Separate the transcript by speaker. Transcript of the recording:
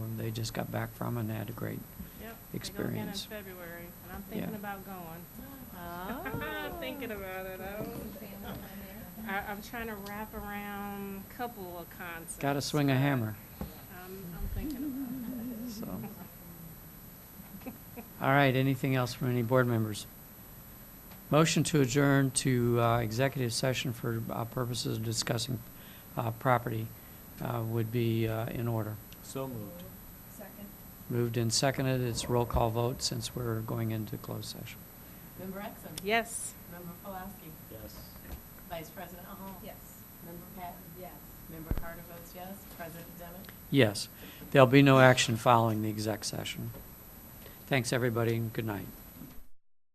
Speaker 1: we just got back from and had a great,
Speaker 2: Yep.
Speaker 1: experience.
Speaker 2: I go again in February, and I'm
Speaker 1: Yeah.
Speaker 2: thinking about going.
Speaker 3: Oh.
Speaker 4: Oh.
Speaker 2: I'm thinking about it. I don't- I, I'm trying to wrap around a couple of concepts.
Speaker 1: gotta swing a
Speaker 2: but
Speaker 1: hammer,
Speaker 2: I'm, I'm thinking
Speaker 1: so. All right, anything else from any board members? Motion to adjourn to uh, executive session for uh, purposes of discussing uh, property uh, would be uh, in order.
Speaker 5: So moved.
Speaker 3: Second.
Speaker 1: Moved and seconded, it's roll call vote since we're going into closed session.
Speaker 4: Member Exum.
Speaker 2: about it. Yes.
Speaker 4: Member Pulaski.
Speaker 5: Yes.
Speaker 4: Vice President Hall.
Speaker 3: Yes.
Speaker 4: Member Patton.
Speaker 3: Yes.
Speaker 4: Member Carter votes yes. President Demmett.
Speaker 1: Yes, there'll be no action following the exec session. Thanks, everybody, and good night.